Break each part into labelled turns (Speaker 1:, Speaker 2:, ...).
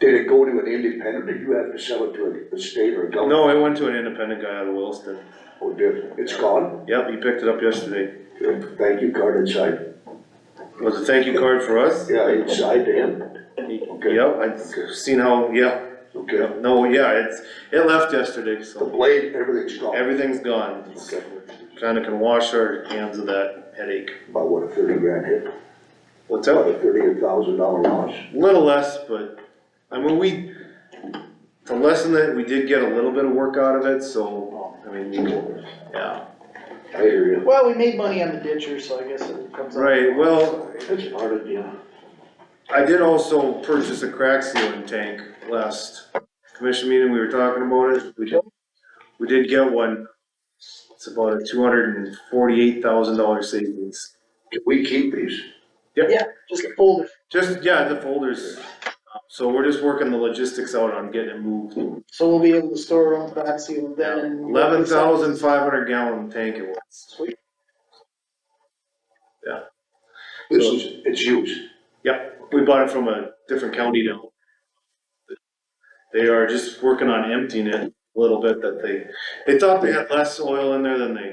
Speaker 1: Did it go to an independent, did you have to sell it to a- a state or a government?
Speaker 2: No, it went to an independent guy out of Williston.
Speaker 1: Or did, it's gone?
Speaker 2: Yep, he picked it up yesterday.
Speaker 1: Good. Thank you card inside?
Speaker 2: It was a thank you card for us.
Speaker 1: Yeah, inside to him,
Speaker 2: Yep, I've seen how, yeah,
Speaker 1: okay?
Speaker 2: Yep, no, yeah, it's, it left yesterday,
Speaker 1: The
Speaker 2: so
Speaker 1: blade, everything's gone.
Speaker 2: everything's gone.
Speaker 1: Okay,
Speaker 2: Kinda can wash our hands of that headache.
Speaker 1: about what, a thirty grand hit,
Speaker 2: What's
Speaker 1: about
Speaker 2: up?
Speaker 1: a thirty thousand dollar loss?
Speaker 2: Little less, but, I mean, we, the lesson that, we did get a little bit of work out of it, so, I mean, we- yeah.
Speaker 1: I hear you.
Speaker 3: Well, we made money on the ditcher, so I guess it comes out.
Speaker 2: Right, well,
Speaker 1: That's part of the,
Speaker 2: I did also purchase a crack sealing tank last commission meeting, we were talking about it, we did, we did get one. It's about a two hundred and forty-eight thousand dollar savings.
Speaker 1: can we keep these?
Speaker 3: Yeah, just a folder.
Speaker 2: Just, yeah, the folders, Um, so we're just working the logistics out on getting it moved.
Speaker 3: So we'll be able to store our own crack seal then.
Speaker 2: Eleven thousand five hundred gallon tank it was.
Speaker 3: Sweet.
Speaker 1: This is, it's used.
Speaker 2: Yep, we bought it from a different county now. They are just working on emptying it a little bit that they, they thought they had less oil in there than they, and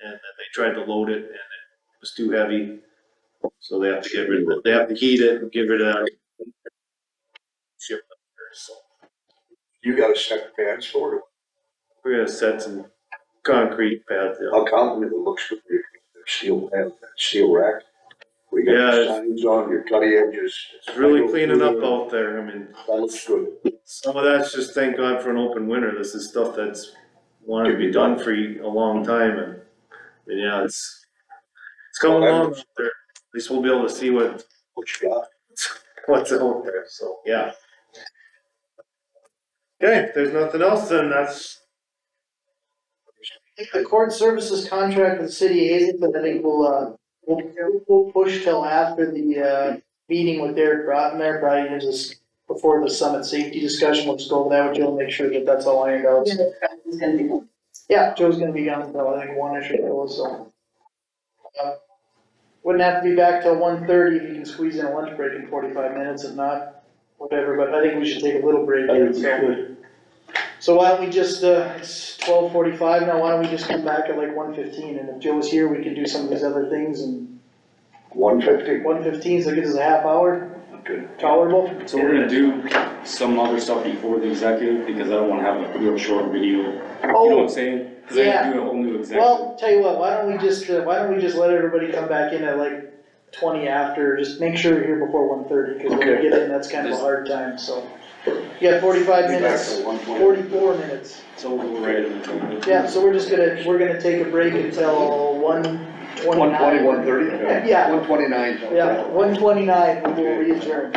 Speaker 2: then they tried to load it and it was too heavy. So they have to get rid of it, they have to heat it and get rid of that. Ship up there, so
Speaker 1: You got a set pads for it?
Speaker 2: We're gonna set some concrete pads, yeah.
Speaker 1: I'll compliment it looks good, your steel pad, that steel rack. We got
Speaker 2: Yeah,
Speaker 1: the
Speaker 2: it's-
Speaker 1: signs on, your cutting edges.
Speaker 2: It's really cleaning up out there, I mean,
Speaker 1: That looks good.
Speaker 2: Some of that's just thank God for an open winter, this is stuff that's wanted to be done for a long time and, and yeah, it's, it's coming along, out there. at least we'll be able to see what,
Speaker 1: What you got?
Speaker 2: what's out there, so, yeah. Okay, if there's nothing else, then that's,
Speaker 3: I think The court services contract with the city of Hazelton, I think we'll, uh, we'll, we'll push till after the, uh, meeting with Derek Rotten there, probably is this before the summit safety discussion, we'll just go over that with Joe, and make sure that that's all ironed out.
Speaker 4: It's gonna be.
Speaker 3: Yeah, Joe's gonna be gone until I think one ish or so, so. uh, Wouldn't have to be back till one thirty if you can squeeze in a lunch break in forty-five minutes, if not, whatever, but I think we should take a little break.
Speaker 1: I
Speaker 3: here,
Speaker 1: think we
Speaker 3: so. So why don't we just, uh, it's twelve forty-five now, why don't we just come back at like one fifteen, and if Joe's here, we can do some of these other things, and
Speaker 1: One fifty?
Speaker 3: one fifteen, so it gives us a half hour,
Speaker 1: Good.
Speaker 3: tolerable.
Speaker 5: So we're gonna do some other stuff before the executive, because I don't wanna have a real short video, you know
Speaker 3: Oh,
Speaker 5: what I'm saying? Cause I
Speaker 3: yeah.
Speaker 5: gotta do a whole new executive.
Speaker 3: Well, tell you what, why don't we just, uh, why don't we just let everybody come back in at like twenty after, just make sure you're here before one thirty, cause when we
Speaker 1: Okay.
Speaker 3: get in, that's kind of a hard time, so. You got forty-five minutes, forty-four minutes,
Speaker 5: So we'll write it in the minutes.
Speaker 3: yeah, so we're just gonna, we're gonna take a break until one twenty-nine.
Speaker 1: One twenty, one thirty?
Speaker 3: Yeah.
Speaker 1: One twenty-nine.
Speaker 3: Yeah, one twenty-nine, we'll readjourn.